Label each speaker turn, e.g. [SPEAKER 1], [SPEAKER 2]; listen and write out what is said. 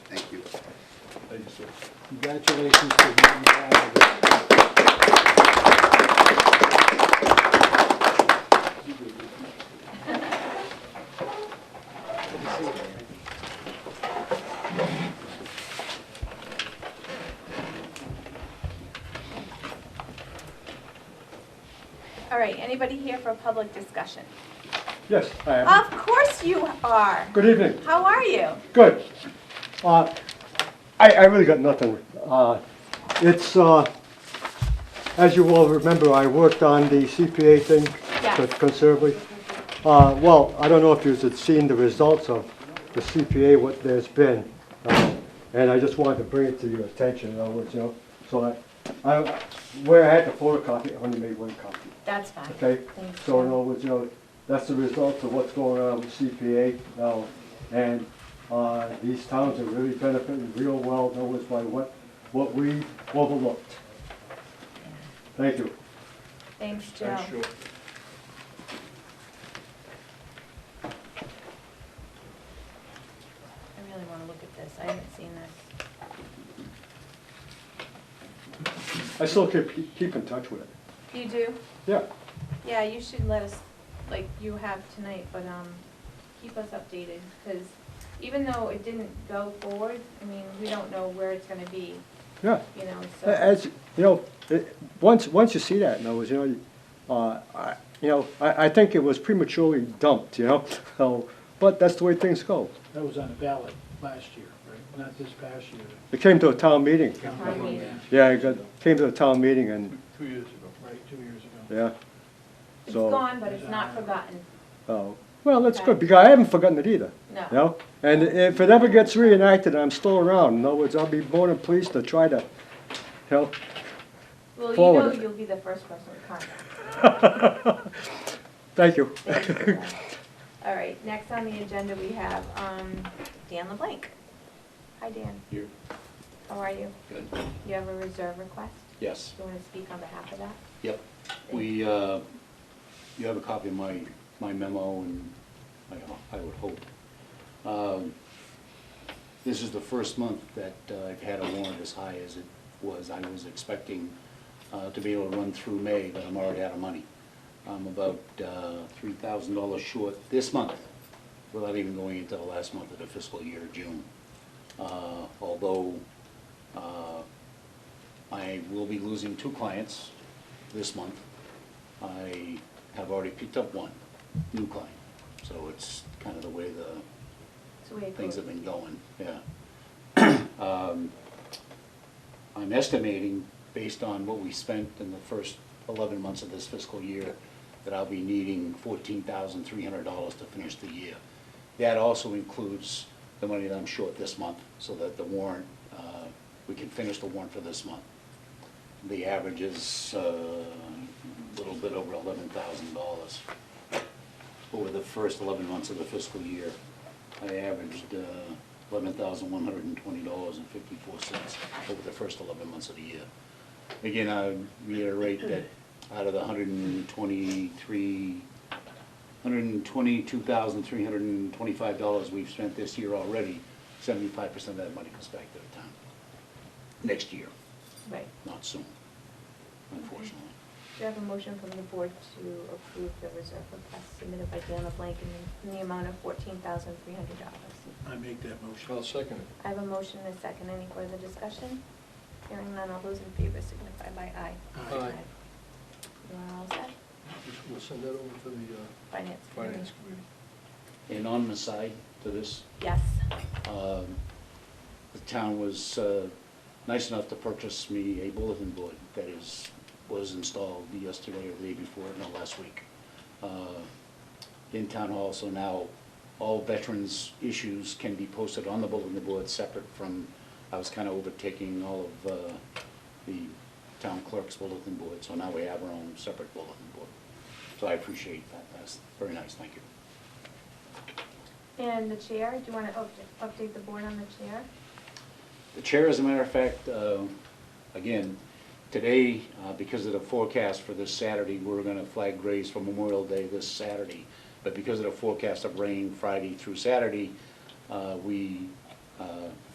[SPEAKER 1] officer. Congratulations to him and all of us.
[SPEAKER 2] All right, anybody here for a public discussion?
[SPEAKER 1] Yes, I am.
[SPEAKER 2] Of course you are.
[SPEAKER 1] Good evening.
[SPEAKER 2] How are you?
[SPEAKER 1] Good. Uh, I, I really got nothing. Uh, It's, uh, as you all remember, I worked on the CPA thing
[SPEAKER 2] Yeah.
[SPEAKER 1] with Conservative. Uh, Well, I don't know if you've seen the results of the CPA, what there's been. uh, And I just wanted to bring it to your attention, in other words, you know. So I, I, where I had the photocopy, I only made one copy.
[SPEAKER 2] That's fine.
[SPEAKER 1] Okay,
[SPEAKER 2] Thank
[SPEAKER 1] so in
[SPEAKER 2] you.
[SPEAKER 1] other words, you know, that's the result of what's going on with CPA now. And uh, these towns are really benefiting real well, in other words, by what, what we overlooked. Thank you.
[SPEAKER 2] Thanks, Joe. I really want to look at this. I haven't seen this.
[SPEAKER 1] I still keep, keep in touch with it.
[SPEAKER 2] You do?
[SPEAKER 1] Yeah,
[SPEAKER 2] Yeah, you should let us, like you have tonight, but, um, keep us updated, because even though it didn't go forward, I mean, we don't know where it's gonna be,
[SPEAKER 1] yeah.
[SPEAKER 2] you know,
[SPEAKER 1] A-
[SPEAKER 2] so.
[SPEAKER 1] As, you know, it- once, once you see that, in other words, you know, you- uh, I, you know, I, I think it was prematurely dumped, you know? So, but that's the way things go.
[SPEAKER 3] That was on the ballot last year, right? Not this past year.
[SPEAKER 1] It came to a town meeting.
[SPEAKER 2] Town meeting.
[SPEAKER 1] Yeah, I got, came to the town meeting and,
[SPEAKER 3] Two years ago. Right, two years ago.
[SPEAKER 1] yeah.
[SPEAKER 2] It's
[SPEAKER 1] So-
[SPEAKER 2] gone, but it's not forgotten,
[SPEAKER 1] Oh, well, that's good, because I haven't forgotten it either,
[SPEAKER 2] no.
[SPEAKER 1] you know? And if it ever gets reenacted, I'm still around. In other words, I'll be more than pleased to try to, you know,
[SPEAKER 2] Well, you
[SPEAKER 1] forward
[SPEAKER 2] know
[SPEAKER 1] it.
[SPEAKER 2] you'll be the first person to contact.
[SPEAKER 1] thank you.
[SPEAKER 2] All right, next on the agenda, we have um, Dan LeBlanc. Hi, Dan.
[SPEAKER 4] Here.
[SPEAKER 2] How are you?
[SPEAKER 4] Good.
[SPEAKER 2] You have a reserve request?
[SPEAKER 4] Yes,
[SPEAKER 2] Do you want to speak on behalf of that?
[SPEAKER 4] yep. We, uh, you have a copy of my, my memo and I, I would hope. Um, This is the first month that uh, I've had a warrant as high as it was. I was expecting uh, to be able to run through May, but I'm already out of money. I'm about uh, $3,000 short this month, without even going into the last month of the fiscal year, June. Uh, Although uh, I will be losing two clients this month. I have already picked up one new client, so it's kind of the way the
[SPEAKER 2] So we
[SPEAKER 4] things have
[SPEAKER 2] approve.
[SPEAKER 4] been going, yeah. Um, I'm estimating, based on what we spent in the first eleven months of this fiscal year, that I'll be needing fourteen thousand three hundred dollars to finish the year. That also includes the money that I'm short this month, so that the warrant, uh, we can finish the warrant for this month. The average is uh, a little bit over eleven thousand dollars over the first eleven months of the fiscal year. I averaged uh, eleven thousand one hundred and twenty dollars and fifty-four cents over the first eleven months of the year. Again, I reiterate that out of the hundred and twenty-three hundred and twenty-two thousand, three hundred and twenty-five dollars we've spent this year already, seventy-five percent of that money comes back to the town next year,
[SPEAKER 2] Right.
[SPEAKER 4] not soon, unfortunately.
[SPEAKER 2] Do you have a motion from the board to approve the reserve request submitted by Dan LeBlanc in the- in the amount of $14,300?
[SPEAKER 3] I make that motion.
[SPEAKER 5] I'll second it.
[SPEAKER 2] I have a motion and a second. Any further discussion? Hearing none, all those in favor signify by aye.
[SPEAKER 3] Aye.
[SPEAKER 5] Aye.
[SPEAKER 2] You are all set?
[SPEAKER 5] We'll send that over to the uh,
[SPEAKER 2] Finance committee?
[SPEAKER 5] Finance Committee.
[SPEAKER 4] And on the side to this,
[SPEAKER 2] Yes.
[SPEAKER 4] um, the town was uh, nice enough to purchase me a bulletin board that is, was installed yesterday or the day before, no, last week, uh, in town hall. So now all veterans' issues can be posted on the bulletin board separate from, I was kind of overtaking all of uh, the town clerk's bulletin board. So now we have our own separate bulletin board. So I appreciate that. That's very nice. Thank you.
[SPEAKER 2] And the chair, do you want to update the board on the chair?
[SPEAKER 4] The chair, as a matter of fact, uh, again, today, uh, because of the forecast for this Saturday, we're going to flag graves for Memorial Day this Saturday. But because of the forecast of rain Friday through Saturday, uh, we uh,